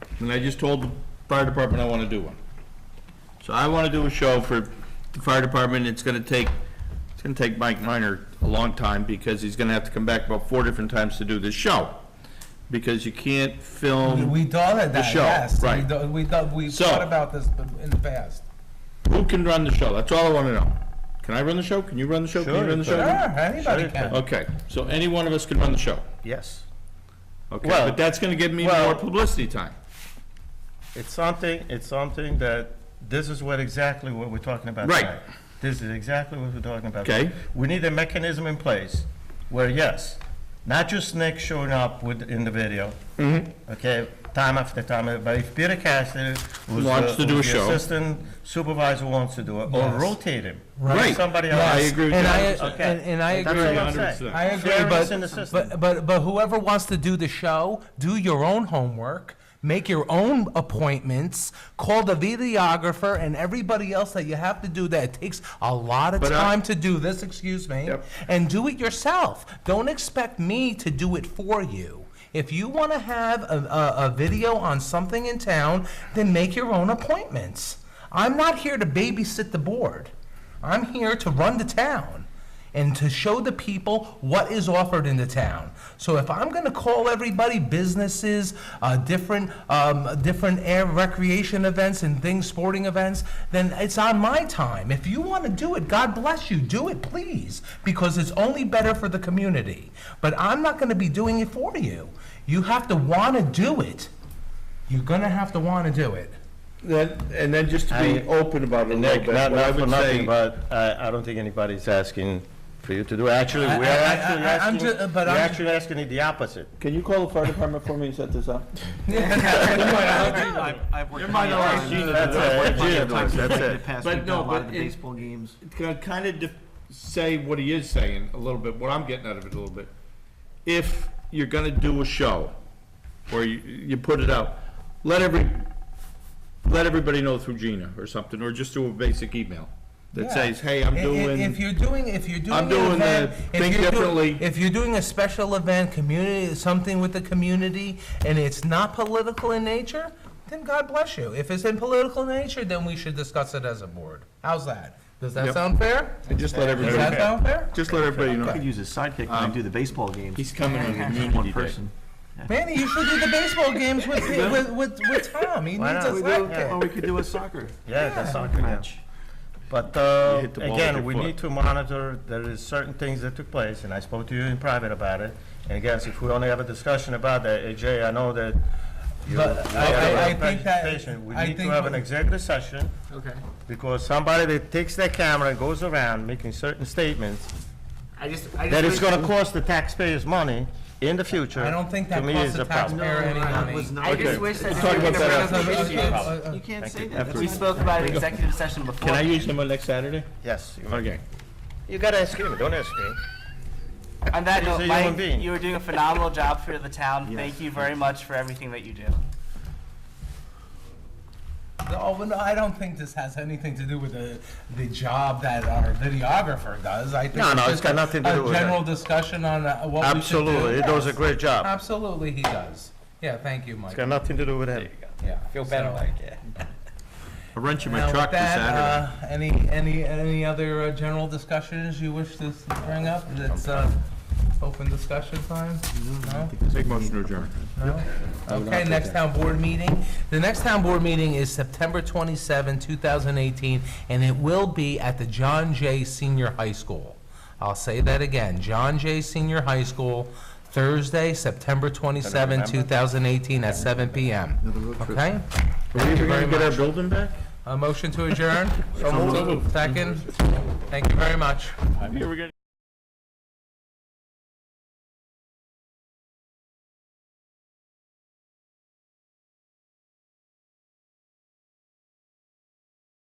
and I just told the fire department I want to do one. So I want to do a show for the fire department, it's going to take, it's going to take Mike Minor a long time, because he's going to have to come back about four different times to do this show, because you can't film, We thought of that, show, yes. We right. thought- We thought, we So- thought about this in the past. who can run the show? That's all I want to know. Can I run the show? Can you run the show? Can you Sure, run the you show? Sure, anybody Sure. can. Okay, so any one of us can run the show, Yes. okay? Well- But that's going to give me more well- publicity time. It's something, it's something that, this is what exactly what we're talking about Right. tonight. This is exactly what we're talking about. Okay. We need a mechanism in place where, yes, not just Nick showing up with, in the video. Mm-hmm. Okay, time after time, but if Peter Cassidy, who's Wants to the- do a who's the show. assistant supervisor wants to do it, or Yes. rotate him. Right. Somebody No, I else. agree with you. And I, 100%. Okay. and and I That's agree. all I'm saying. 100%. I agree, Fairness in the but, system. but, but, but whoever wants to do the show, do your own homework, make your own appointments, call the videographer and everybody else that you have to do that. It takes a lot of But I- time to do this, excuse me, Yep. and do it yourself. Don't expect me to do it for you. If you want to have a, a, a video on something in town, then make your own appointments. I'm not here to babysit the board. I'm here to run the town and to show the people what is offered in the town. So if I'm going to call everybody, businesses, uh, different, um, different air recreation events and things, sporting events, then it's on my time. If you want to do it, God bless you, do it, please, because it's only better for the community. But I'm not going to be doing it for you. You have to want to do it. You're going to have to want to do it. Then, and then just to be I- open about it a little Nick, bit. not, what I not for would say- nothing, but I, I don't think anybody's asking for you to do, actually, I- we're I- I- actually I- I'm asking, ju- but we're I'm- actually asking the opposite. Can you call the fire department for me and set this up? I've, I've worked. You're my many times. lawyer. You- That's it. I've worked many Yeah, times that's in the it. past. But We've no, done a lot of but the it- baseball games. Kind of def- say what he is saying a little bit, what I'm getting out of it a little bit. If you're gonna do a show, or you, you put it out, let every, let everybody know through Gina or something, or just do a basic email that Yeah. says, hey, I'm I- i- If doing, you're doing, if you're doing. I'm an doing the event, if Think you're doing- Differently. If you're doing a special event, community, something with the community, and it's not political in nature, then God bless you. If it's in political nature, then we should discuss it as a board. How's that? Does that Yep. sound fair? and just let Does that everybody, sound fair? just let everybody I could know. use a sidekick when I do the baseball games. He's coming on One Community Day. person. Manny, you should do the baseball games with, with, with, with Tom. He Why needs a not? We Or sidekick. we could do a soccer Yeah, that's not gonna match. But uh, You hit the ball with your again, we foot. need to monitor, there is certain things that took place, and I spoke to you in private about it. And again, if we only have a discussion about that, AJ, I know that you But you I- have I- I a think that- presentation. We I need to think have what- an executive session, Okay. because somebody that takes their camera and goes around making certain statements, I just, I just. that is gonna cost the taxpayers money in the future. I don't think that to me costs is the a problem. taxpayer any money. I Okay. just wish that. We'll talk about that after. You can't say you. that. That's- We spoke about an executive session before. Can I use them on next Saturday? Yes, you- Okay. you gotta ask him, don't ask me. On that He's a note, human Mike, being. you are doing a phenomenal job for the town. Thank you very much for everything that you do. Oh, well, no, I don't think this has anything to do with the, the job that our videographer does. I think No, no, it's just got nothing to do with A that. uh, general discussion on uh, what we should do. Absolutely, he does a Yes. great job. Absolutely, he does. Yeah, thank you, Mike. It's got nothing to do with him. Yeah. Feel better, Mike. I rent you my Now, with truck this Saturday. that, uh, any, any, any other uh, general discussions you wish to s- bring up? It's, uh, open discussion time? No? Make motion to adjourn. No? Okay, next town board meeting. The next town board meeting is September 27, 2018, and it will be at the John Jay Senior High School. I'll say that again, John Jay Senior High School, Thursday, September 27, remember. 2018, at 7 PM. Okay? Are we Thank you ever very gonna get our much. building back? A motion to adjourn? So moved. Second? Thank you very much.